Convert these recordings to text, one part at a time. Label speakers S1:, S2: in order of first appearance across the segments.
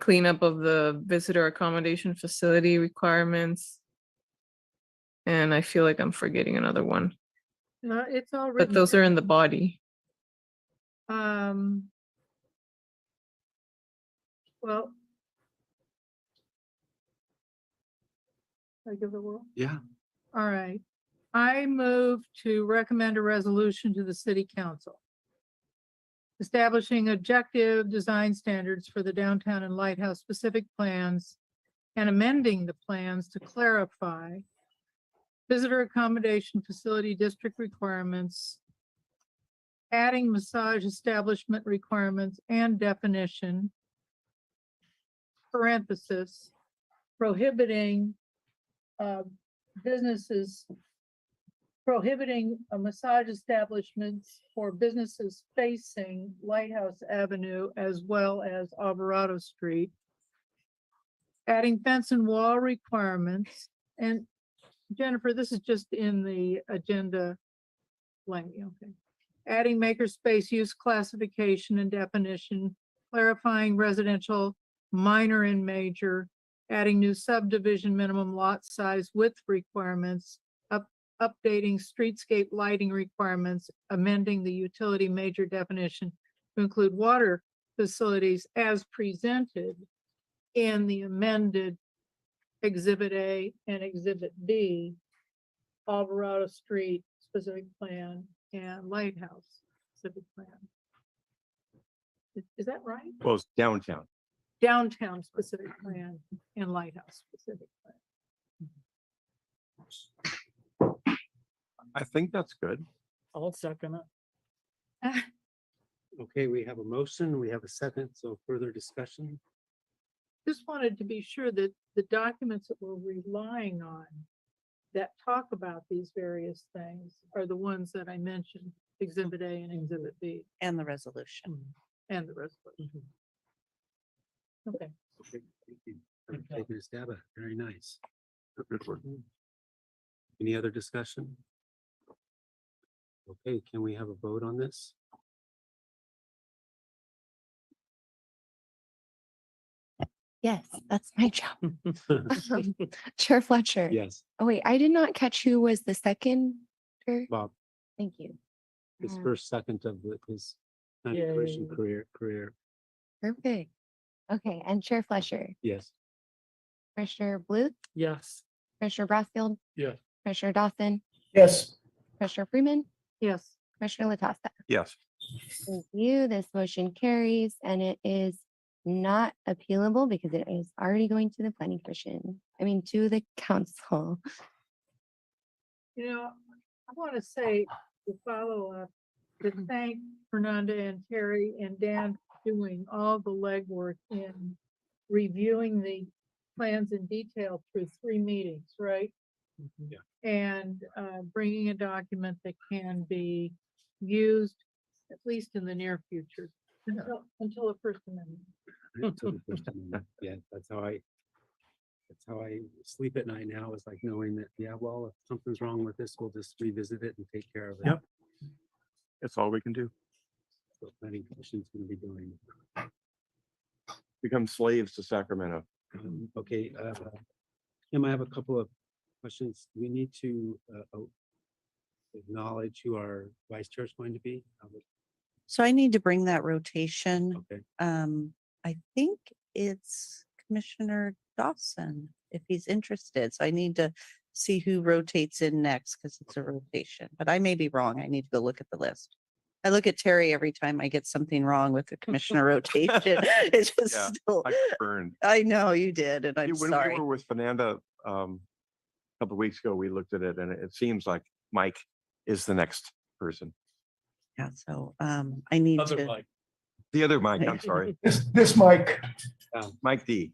S1: cleanup of the visitor accommodation facility requirements. And I feel like I'm forgetting another one,
S2: No, it's all
S1: but
S2: written.
S1: those are in the body.
S2: Um. Well. I give the world.
S3: Yeah,
S2: All right. I move to recommend a resolution to the city council. Establishing objective design standards for the downtown and lighthouse specific plans and amending the plans to clarify visitor accommodation facility district requirements, adding massage establishment requirements and definition, parenthesis, prohibiting uh, businesses prohibiting a massage establishments for businesses facing Lighthouse Avenue as well as Alvarado Street. Adding fence and wall requirements. And Jennifer, this is just in the agenda. Blank, okay. Adding makerspace use classification and definition, clarifying residential, minor and major, adding new subdivision minimum lot size width requirements, up, updating streetscape lighting requirements, amending the utility major definition to include water facilities as presented in the amended Exhibit A and Exhibit B, Alvarado Street specific plan and Lighthouse specific plan. Is- Is that right?
S3: well, it's downtown.
S2: downtown specific plan and lighthouse specific plan.
S3: I think that's good.
S4: I'll second it.
S5: Okay, we have a motion, we have a second, so further discussion.
S2: Just wanted to be sure that the documents that we're relying on that talk about these various things are the ones that I mentioned, exhibit A and exhibit B
S6: and the resolution.
S2: and the resolution. Okay,
S5: Okay, thank you. for Taking a stab at it. very nice.
S3: Good work.
S5: Any other discussion? Okay, can we have a vote on this?
S7: Yes, that's my job. Um, Chair Fletcher.
S5: Yes,
S7: Oh, wait, I did not catch who was the second. chair.
S5: Bob,
S7: Thank you.
S5: his
S7: Uh,
S5: first second of the- his county
S4: Yeah, yeah,
S5: commission
S4: yeah.
S5: career, career,
S7: Perfect. Okay, and Chair Fletcher,
S5: yes.
S7: Commissioner Bluth,
S4: Yes.
S7: Commissioner Brassfield.
S4: Yes.
S7: Commissioner Dawson,
S4: Yes.
S7: Commissioner Freeman,
S2: yes,
S7: Commissioner Latassa.
S3: Yes,
S7: Thank you. This motion carries and it is not appealable because it is already going to the planning commission. I mean, to the council.
S2: you know, I want to say the follow-up to thank Fernanda and Terry and Dan for doing all the legwork in reviewing the plans in detail through three meetings, right?
S5: Yeah.
S2: And uh, bringing a document that can be used, at least in the near future, until- until the First Amendment.
S5: until the first amendment. Yeah, that's how I, that's how I sleep at night now, is like knowing that, yeah, well, if something's wrong with this, we'll just revisit it and take care of it.
S3: Yep. that's all we can do.
S5: what planning commission's gonna be doing.
S3: Become slaves to Sacramento.
S5: Um, Okay, uh, Kim, I have a couple of questions. We need to uh, oh, acknowledge who our vice chair is going to be. Uh,
S6: So I need to bring that rotation.
S5: Okay,
S6: Um, I think it's Commissioner Dawson, if he's interested. So I need to see who rotates in next because it's a rotation, but I may be wrong. I need to go look at the list. I look at Terry every time I get something wrong with the commissioner rotation. It's
S3: Yeah,
S6: just, still-
S3: I burned.
S6: I know you did, and I'm
S3: When we
S6: sorry.
S3: were with Fernanda, um, a couple of weeks ago, we looked at it and it- it seems like Mike is the next person.
S6: Yeah, so, um, I need to.
S3: The other Mike, I'm sorry,
S8: This, this mic,
S3: Mike D.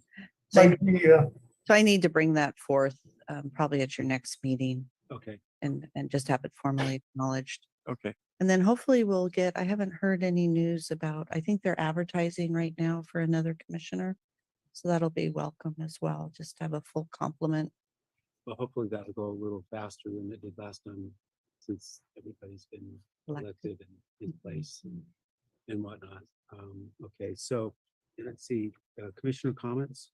S6: So I-
S8: mic, yeah,
S6: so I need to bring that forth, um, probably at your next meeting.
S5: okay.
S6: and, and just have it formally acknowledged.
S3: Okay,
S6: And then hopefully we'll get, I haven't heard any news about, I think they're advertising right now for another commissioner. So that'll be welcome as well, just to have a full complement.
S5: Well, hopefully that'll go a little faster than it did last time, since everybody's been
S6: Elected. Mm-hmm.
S5: elected and in place and- and whatnot. Um, okay, so Let's see, uh, commissioner comments?